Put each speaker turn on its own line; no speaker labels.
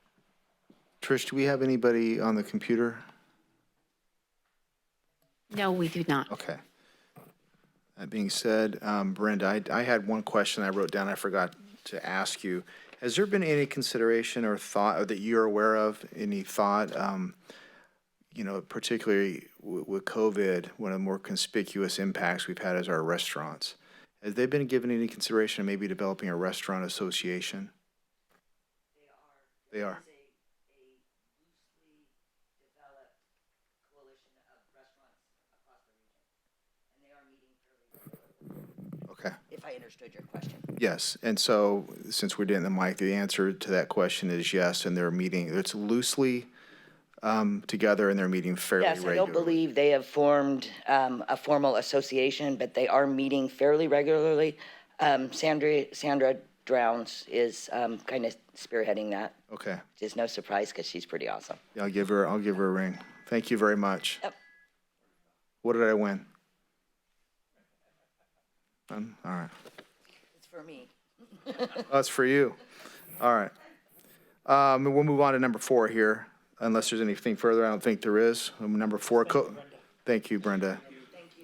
Trish, do we have anybody on the computer?
No, we do not.
Okay. That being said, um, Brenda, I, I had one question I wrote down I forgot to ask you. Has there been any consideration or thought, or that you're aware of, any thought, um, you know, particularly wi- with COVID, one of the more conspicuous impacts we've had is our restaurants. Has they been given any consideration of maybe developing a restaurant association? They are. Okay.
if I understood your question.
Yes, and so, since we're getting the mic, the answer to that question is yes, and they're meeting, it's loosely um, together and they're meeting fairly
Yes, I
regularly.
don't believe they have formed um, a formal association, but they are meeting fairly regularly. Um, Sandra, Sandra Drowns is kind of spearheading that,
Okay,
which is no surprise because she's pretty awesome.
I'll give her, I'll give her a ring. Thank you very much.
Yep.
What did I win? None? All right.
It's for me.
That's for you. All right. Um, and We'll move on to number four here, unless there's anything further. I don't think there is. Um, Number four, co- thank you, Brenda.